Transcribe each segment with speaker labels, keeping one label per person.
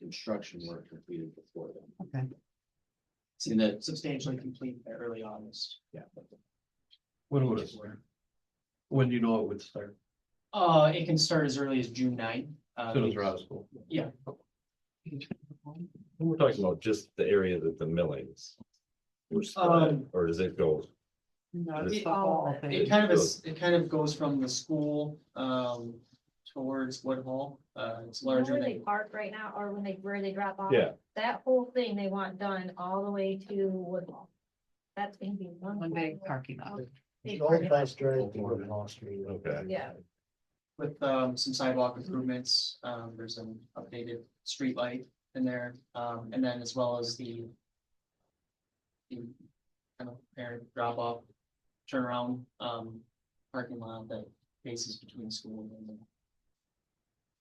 Speaker 1: construction work completed before then.
Speaker 2: Okay.
Speaker 1: See that,
Speaker 3: substantially complete by early August. Yeah.
Speaker 4: When would it start? When do you know it would start?
Speaker 3: Uh, it can start as early as June 9th. uh,
Speaker 4: Soon as we're out of school.
Speaker 3: Yeah,
Speaker 5: We're talking about just the area that the millings. were spread,
Speaker 3: Um,
Speaker 5: Or does it go?
Speaker 2: No,
Speaker 3: It-
Speaker 2: it's the whole
Speaker 3: it
Speaker 2: thing.
Speaker 3: kind of is, it kind of goes from the school, um, towards Woodhall, uh, it's
Speaker 6: Where
Speaker 3: larger
Speaker 6: they
Speaker 3: than.
Speaker 6: park right now, or when they, where they drop off.
Speaker 5: Yeah.
Speaker 6: That whole thing they want done all the way to Woodlawn. That's gonna be one.
Speaker 2: One big parking lot.
Speaker 6: big
Speaker 7: Old
Speaker 6: parking lot.
Speaker 7: class drive to Woodlawn Street.
Speaker 5: Okay.
Speaker 6: Yeah,
Speaker 3: With, um, some sidewalk improvements, um, there's an updated street light in there, um, and then as well as the. the Kind of parent drop off, turnaround, um, parking lot that faces between school and. the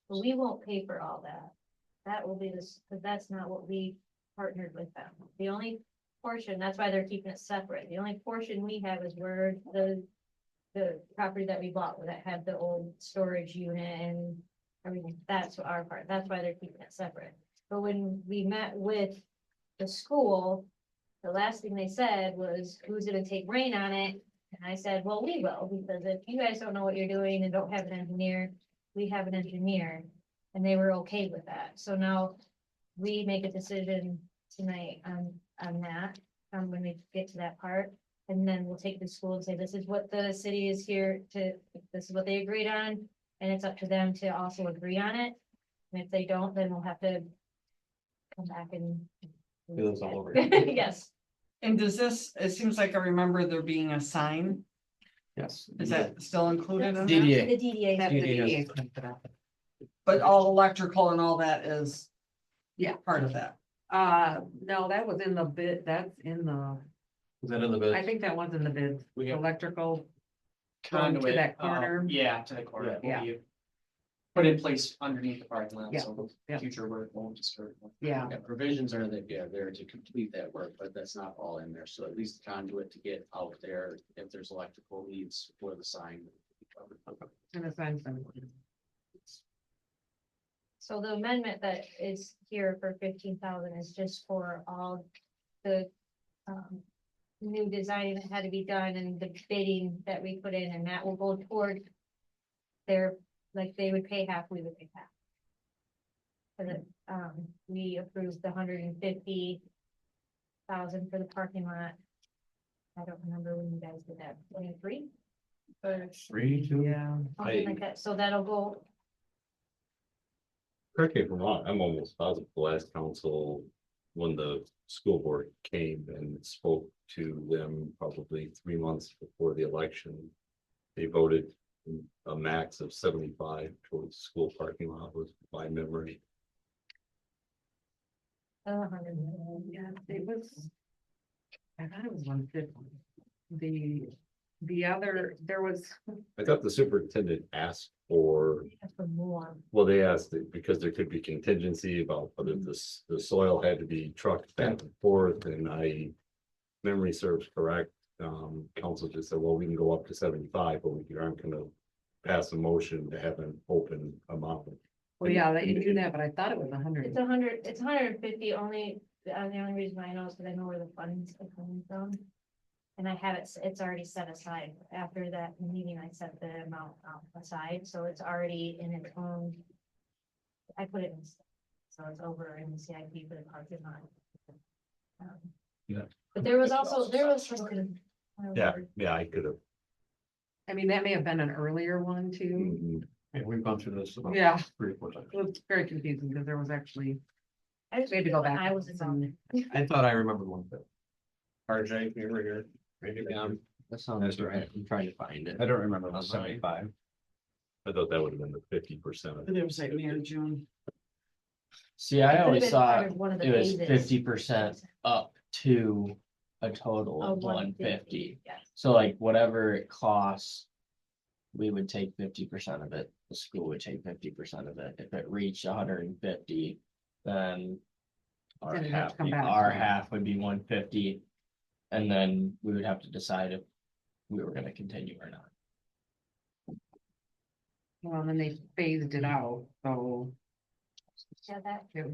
Speaker 6: but we won't pay for all that. That will be this, because that's not what we partnered with them. The only portion, that's why they're keeping it separate. The only portion we have is where the. The property that we bought that had the old storage unit and everything, that's our part. That's why they're keeping it separate. But when we met with the school, the last thing they said was, who's gonna take rain on it? And I said, well, we will, because if you guys don't know what you're doing and don't have an engineer, we have an engineer. And they were okay with that. So now we make a decision tonight on, on that, um, when we get to that part. And then we'll take the school and say, this is what the city is here to, this is what they agreed on. And it's up to them to also agree on it. And if they don't, then we'll have to come back and.
Speaker 4: Do those all over again.
Speaker 6: Yes.
Speaker 8: And does this, it seems like I remember there being a sign,
Speaker 4: Yes.
Speaker 8: is that still included in that?
Speaker 4: DDA.
Speaker 6: The DDA.
Speaker 2: That's the
Speaker 4: Yeah, yeah.
Speaker 2: DDA cleaned it up.
Speaker 8: But all electrical and all that is.
Speaker 2: Yeah.
Speaker 8: Part of that.
Speaker 2: Uh, no, that was in the bid, that's in the,
Speaker 4: Is that in the
Speaker 2: I
Speaker 4: bid?
Speaker 2: think that was in the bid,
Speaker 4: We got-
Speaker 2: electrical. Going to
Speaker 3: conduit.
Speaker 2: that
Speaker 3: uh,
Speaker 2: corner.
Speaker 3: Yeah, to the corner.
Speaker 2: Yeah.
Speaker 3: will be Put in place underneath the parking lot,
Speaker 2: Yeah,
Speaker 3: so
Speaker 2: yeah.
Speaker 3: future work won't disturb. them.
Speaker 2: Yeah,
Speaker 1: yeah, provisions are that, yeah, there to complete that work, but that's not all in there, so at least conduit to get out there if there's electrical needs for the sign.
Speaker 2: and the sign's been.
Speaker 6: So the amendment that is here for fifteen thousand is just for all the um. New design that had to be done and the bidding that we put in and that will go toward. Their, like they would pay half, we would pay half. For the, um, we approved the hundred and fifty thousand for the parking lot. I don't remember when you guys did that, twenty-three?
Speaker 4: Three, two.
Speaker 2: Yeah.
Speaker 6: Something
Speaker 5: I-
Speaker 6: like that, so that'll go
Speaker 5: Correct me if I'm wrong, I'm almost positive the last council, when the school board came and spoke to them probably three months before the election. They voted a max of seventy-five towards school parking lot was my memory.
Speaker 6: a uh, hundred.
Speaker 2: Yeah, it was. I thought it was one fifty. The, the other, there was,
Speaker 5: I thought the superintendent asked for
Speaker 6: That's for more.
Speaker 5: Well, they asked it because there could be contingency about whether this, the soil had to be trucked back and forth and I. Memory serves correct, um, council just said, well, we can go up to seventy-five, but we aren't gonna. Pass a motion to have an open amount.
Speaker 2: well, yeah, they knew that, but I thought it was a hundred.
Speaker 6: It's a hundred, it's a hundred and fifty only, uh, the only reason I know is because I know where the funds are coming from. And I have it, s- it's already set aside. After that meeting, I set the amount um, aside, so it's already in its own. I put it in, s- so it's over in the CIP for the parking lot. Um,
Speaker 5: Yeah.
Speaker 6: But there was also, there was. something-
Speaker 5: Yeah, yeah, I could have.
Speaker 2: I mean, that may have been an earlier one too.
Speaker 5: mhm.
Speaker 4: Yeah, we've gone through this. about
Speaker 2: Yeah,
Speaker 4: Three, or four times.
Speaker 2: it was very confusing because there was actually,
Speaker 6: I just-
Speaker 2: we had to go back.
Speaker 6: I was involved.
Speaker 2: and-
Speaker 4: I thought I remembered one thing. RJ, you were here. Maybe
Speaker 1: Um, that sounds
Speaker 4: That's
Speaker 1: right,
Speaker 4: right.
Speaker 1: I'm trying to find it.
Speaker 4: I don't remember
Speaker 1: the
Speaker 4: the seventy-five.
Speaker 5: I thought that would have been the fifty percent of
Speaker 8: There was like May or June.
Speaker 1: See, I
Speaker 6: Could've
Speaker 1: always
Speaker 6: been
Speaker 1: thought
Speaker 6: part of one of the
Speaker 1: it was
Speaker 6: phases.
Speaker 1: fifty percent up to a total
Speaker 6: Oh,
Speaker 1: of one fifty.
Speaker 6: Yes.
Speaker 1: So like whatever it costs. We would take fifty percent of it, the school would take fifty percent of it, if it reached hundred and fifty, then. Our
Speaker 2: Then it'd have
Speaker 1: half,
Speaker 2: to come back.
Speaker 1: our half would be one fifty, and then we would have to decide if we were gonna continue or not.
Speaker 2: Well, and then they phased it out, so.
Speaker 6: Yeah, that